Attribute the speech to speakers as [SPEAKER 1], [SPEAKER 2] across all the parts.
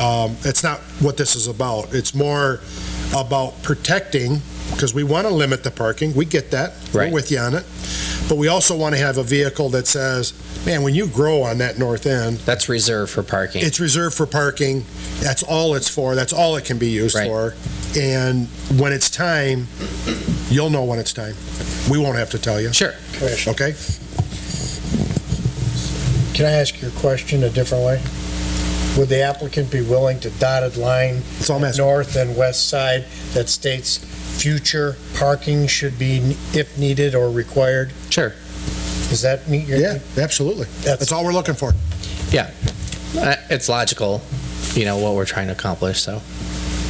[SPEAKER 1] Um, That's not what this is about. It's more about protecting, because we want to limit the parking, we get that.
[SPEAKER 2] Right.
[SPEAKER 1] We're with you on it. But we also want to have a vehicle that says, man, when you grow on that north end,
[SPEAKER 2] That's reserved for parking.
[SPEAKER 1] it's reserved for parking, that's all it's for, that's all it can be used
[SPEAKER 2] Right.
[SPEAKER 1] for. And when it's time, you'll know when it's time. We won't have to tell you,
[SPEAKER 2] Sure.
[SPEAKER 3] Commissioner,
[SPEAKER 1] okay?
[SPEAKER 3] um, can I ask your question a different way? Would the applicant be willing to dotted line
[SPEAKER 1] That's all I'm asking.
[SPEAKER 3] north and west side that states future parking should be if needed or required?
[SPEAKER 2] Sure.
[SPEAKER 3] Does that meet your?
[SPEAKER 1] Yeah, absolutely. That's all we're looking for.
[SPEAKER 2] Uh, It's logical, you know, what we're trying to accomplish, so.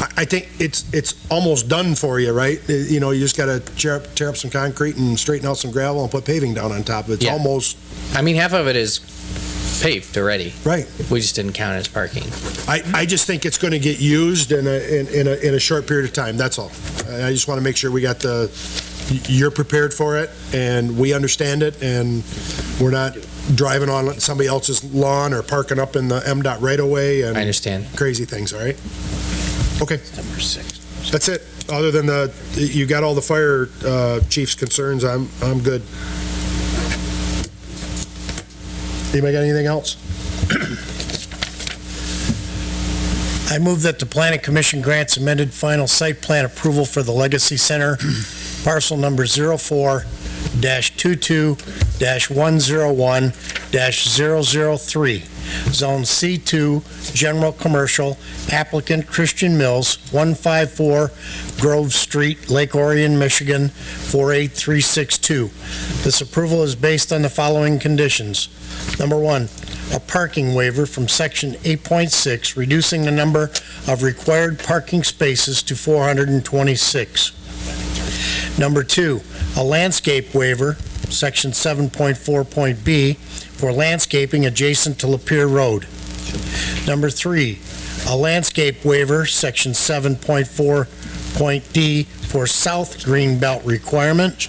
[SPEAKER 1] I I think it's, it's almost done for you, right? Uh, You know, you just gotta tear up, tear up some concrete and straighten out some gravel and put paving down on top of it. It's
[SPEAKER 2] Yeah.
[SPEAKER 1] almost,
[SPEAKER 2] I mean, half of it is paved already.
[SPEAKER 1] Right.
[SPEAKER 2] We just didn't count it as parking.
[SPEAKER 1] I, I just think it's gonna get used in a, in, in a, in a short period of time, that's all. I I just wanna make sure we got the, y- you're prepared for it, and we understand it, and we're not driving on somebody else's lawn or parking up in the M dot right away
[SPEAKER 2] I
[SPEAKER 1] and
[SPEAKER 2] understand.
[SPEAKER 1] crazy things, all right? Okay.
[SPEAKER 3] Number six.
[SPEAKER 1] That's it. Other than the, you got all the fire uh, chief's concerns, I'm, I'm good. Anybody got anything else?
[SPEAKER 3] I move that the planning commission grants amended final site plan approval for the Legacy Center, parcel number 04-22-101-003, zone C2, general commercial, applicant Christian Mills, 154 Grove Street, Lake Orion, Michigan, 48362. This approval is based on the following conditions. Number one, a parking waiver from section 8.6, reducing the number of required parking spaces to 426. Number two, a landscape waiver, section 7.4. B, for landscaping adjacent to Lapeer Road. Number three, a landscape waiver, section 7.4. D, for south green belt requirement.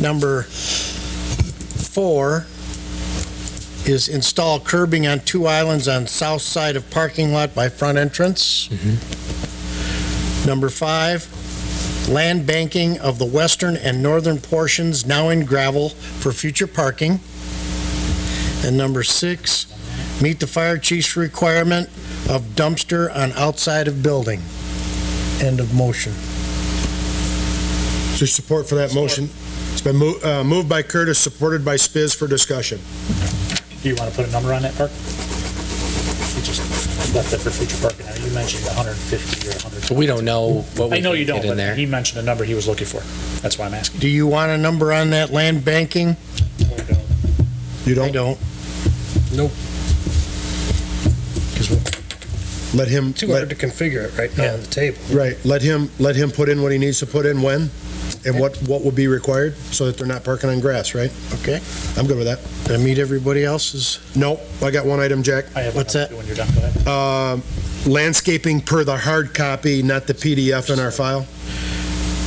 [SPEAKER 3] Number four, is install curbing on two islands on south side of parking lot by front entrance. Number five, land banking of the western and northern portions now in gravel for future parking. And number six, meet the fire chief's requirement of dumpster on outside of building. End of motion.
[SPEAKER 1] Is there support for that motion? It's been mo- uh, moved by Curtis, supported by Spiz for discussion.
[SPEAKER 4] Do you want to put a number on that park? You just left that for future parking. Now, you mentioned 150 or 100.
[SPEAKER 2] We don't know what we
[SPEAKER 4] I know you
[SPEAKER 2] can
[SPEAKER 4] don't,
[SPEAKER 2] get in
[SPEAKER 4] but
[SPEAKER 2] there.
[SPEAKER 4] he mentioned a number he was looking for. That's why I'm asking.
[SPEAKER 3] Do you want a number on that land banking?
[SPEAKER 1] You
[SPEAKER 3] I
[SPEAKER 1] don't,
[SPEAKER 3] don't.
[SPEAKER 1] let him, let-
[SPEAKER 3] to configure it right now on the table.
[SPEAKER 1] right, let him, let him put in what he needs to put in when, and what, what will be required, so that they're not parking on grass, right?
[SPEAKER 3] Okay.
[SPEAKER 1] I'm good with that.
[SPEAKER 3] Did I meet everybody else's?
[SPEAKER 1] Nope, I got one item, Jack.
[SPEAKER 4] I have
[SPEAKER 3] What's
[SPEAKER 4] another When you're done, go ahead.
[SPEAKER 1] Um, Landscaping per the hard copy, not the PDF in our file.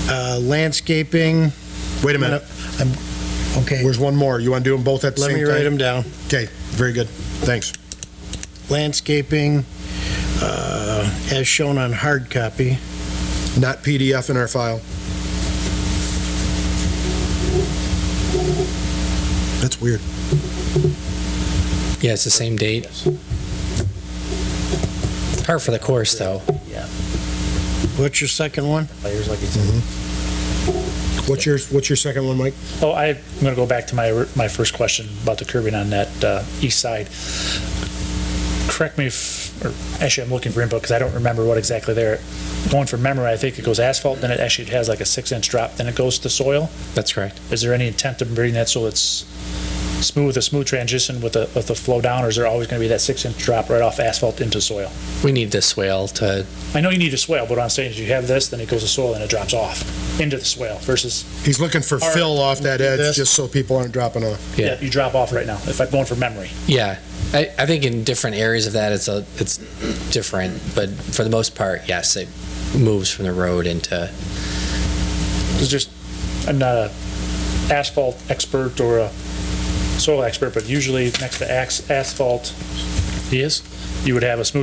[SPEAKER 3] Uh, Landscaping,
[SPEAKER 1] Wait a minute,
[SPEAKER 3] okay,
[SPEAKER 1] there's one more. You want to do them both at the same
[SPEAKER 3] let
[SPEAKER 1] time?
[SPEAKER 3] me write them down.
[SPEAKER 1] Very good, thanks.
[SPEAKER 3] Landscaping, uh, as shown on hard copy.
[SPEAKER 1] Not PDF in our file. That's weird.
[SPEAKER 2] Yeah, it's the same date. Part for the course, though.
[SPEAKER 3] What's your second one?
[SPEAKER 4] Players like you
[SPEAKER 2] Mm-hmm.
[SPEAKER 4] said.
[SPEAKER 1] What's your, what's your second one, Mike?
[SPEAKER 4] Oh, I- I'm going to go back to my, or- my first question about the curbing on that uh, east side. Correct me if, or actually, I'm looking for input because I don't remember what exactly there. Going from memory, I think it goes asphalt, then it actually has like a six-inch drop, then it goes to soil.
[SPEAKER 2] That's correct.
[SPEAKER 4] Is there any intent to bring that so it's smooth, a smooth transition with a, with a flow down, or is there always going to be that six inch drop right off asphalt into soil?
[SPEAKER 2] We need the swale to,
[SPEAKER 4] I know you need a swale, but what I'm saying is you have this, then it goes to soil and it drops off into the swale versus,
[SPEAKER 1] He's looking for
[SPEAKER 4] Our-
[SPEAKER 1] fill off that edge,
[SPEAKER 3] This?
[SPEAKER 1] just so people aren't dropping off.
[SPEAKER 2] Yeah.
[SPEAKER 4] yeah, you drop off right now, if I'm going from memory.
[SPEAKER 2] yeah. I, I think in different areas of that, it's a, it's different, but for the most part, yes, it moves from the road into,
[SPEAKER 4] It's just, I'm not a asphalt expert or a soil expert, but usually next to ax- asphalt, he is, you would have a smooth